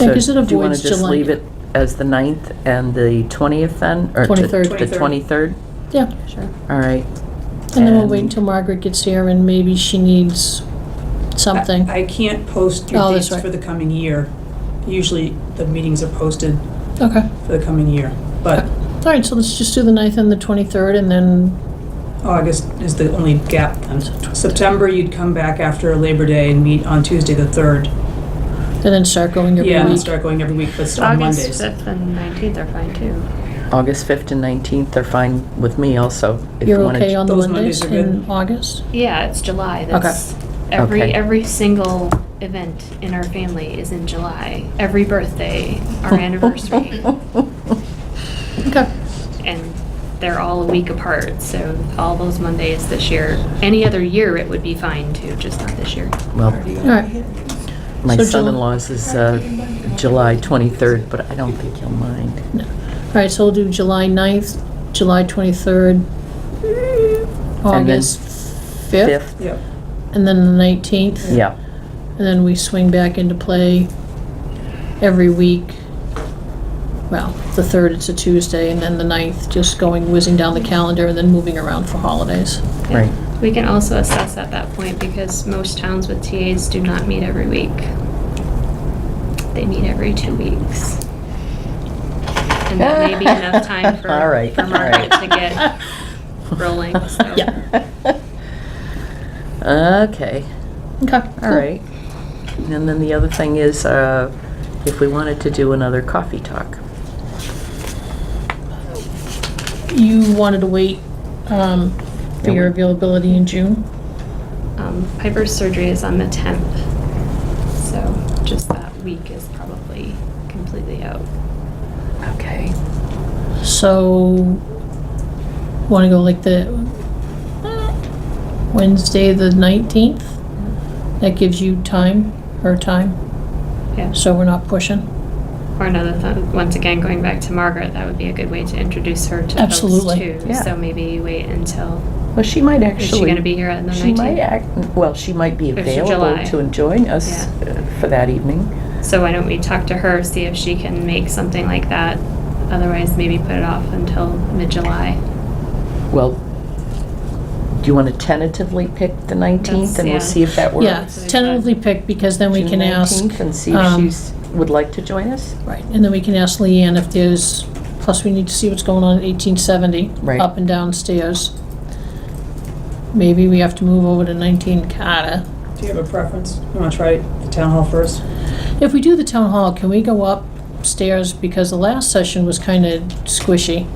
Yeah, 'cause it So do you want avoids to just July. leave it as the 9th and the 20th then? or to- 23rd. The 23rd? Yeah, Sure. All right. and then we'll wait And- until Margaret gets here and maybe she needs something. I I can't post Oh, your that's dates right. for the coming year. Usually, the meetings are posted Okay. for the coming year, but All right, so let's just do the 9th and the 23rd and then, August is the only gap. then. September, you'd come back after Labor Day and meet on Tuesday, the 3rd. and then start going every Yeah, and week. start going every week, but on August Mondays. 5th and 19th are fine too. August 5th and 19th are fine with me also. if you You're wanna okay j- on the Those Mondays Mondays are good. in August? Yeah, it's July. That's every Okay. every single event in our family is in July. Every birthday, our anniversary, Okay, and they're all a week apart. So all those Mondays this year. Any other year, it would be fine too, just not this year. Well, all right. my So Jul- son-in-law's is uh, July 23rd, but I don't think he'll mind. All right, so we'll do July 9th, July 23rd, August 5th, 5th? Yep. and then the 19th. Yeah. And then we swing back into play every week. Well, the 3rd, it's a Tuesday, and then the 9th, just going whizzing down the calendar and then moving around for holidays. Yeah. Right. We can also assess at that point because most towns with TAs do not meet every week. They meet every two weeks. And that may be enough time for, All right, for all Margaret right. to get rolling. So. Yeah. Okay, Okay. all right. And then the other thing is, uh, if we wanted to do another coffee talk. You wanted to wait um, for your availability in June? Um, Piper's surgery is on the 10th. So just that week is probably completely out. Okay. So, want to go like the uh, Wednesday, the 19th? That gives you time, her time, Yeah. so we're not pushing? Or another thing, once again, going back to Margaret, that would be a good way to introduce her to Absolutely. folks too. Yeah. So maybe wait until Well, she might Is actually. she gonna be here on the She might 19th? act, well, she might be Or is it available July? to join us Yeah. uh, for that evening. So why don't we talk to her, see if she can make something like that? Otherwise, maybe put it off until mid-July. Well, do you want to tentatively pick the 19th and yeah. we'll see if that works? Yeah, Wednesday, tentatively pick because then we June can ask. 19th, And see if um, she's, would like to join us? Right, and then we can ask Leanne if there's, plus we need to see what's going on at 1870. Right. Up and downstairs. Maybe we have to move over to 19 Carter. Do you have a preference? You want to try the town hall first? If we do the town hall, can we go upstairs? Because the last session was kind of squishy.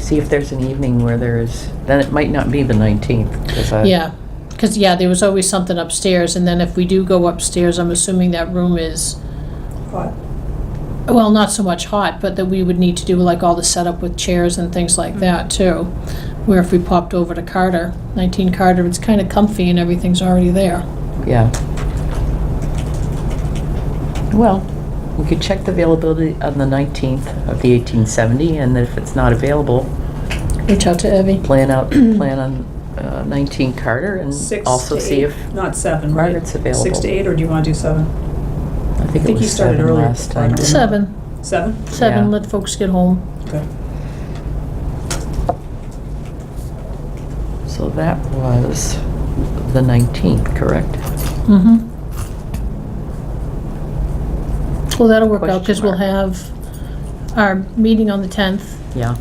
See if there's an evening where there is, then it might not be the 19th. 'cause uh, I- Yeah, because, yeah, there was always something upstairs, and then if we do go upstairs, I'm assuming that room is, Hot. well, not so much hot, but that we would need to do like all the setup with chairs and things like that, too. Where if we popped over to Carter, 19 Carter, it's kind of comfy and everything's already there. Yeah. Well, we could check the availability on the 19th of the 1870, and then if it's not available, Reach out to Evie. plan out, plan on uh, 19 Carter and Six also to see eight, if, Not seven, right? Margaret's available. Six to eight, or do you want to do seven? I think it think you was started seven earlier, last time. Carter. Seven, Seven? seven, Yeah. let folks get home. Okay. So that was the 19th, correct? Mm-hmm. Well, that'll work out, because Question we'll mark. have our meeting on the 10th, Yeah.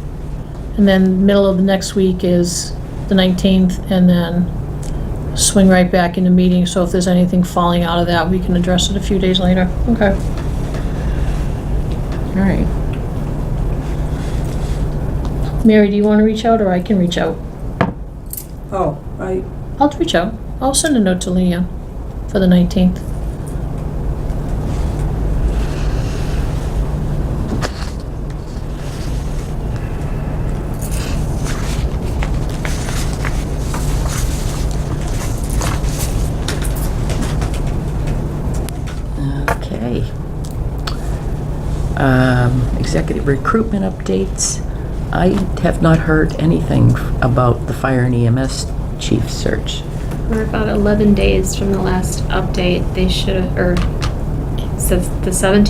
And then middle of the next week is the 19th, and then swing right back into meeting, so if there's anything falling out of that, we can address it a few days later. Okay. All right. Mary, do you want to reach out, or I can reach out? Oh, I, I'll reach out. I'll send a note to Leanne for the 19th. Okay. Um, Executive recruitment updates. I have not heard anything f- about the fire and EMS chief search. We're about 11 days from the last update. They should have, or, since the 17th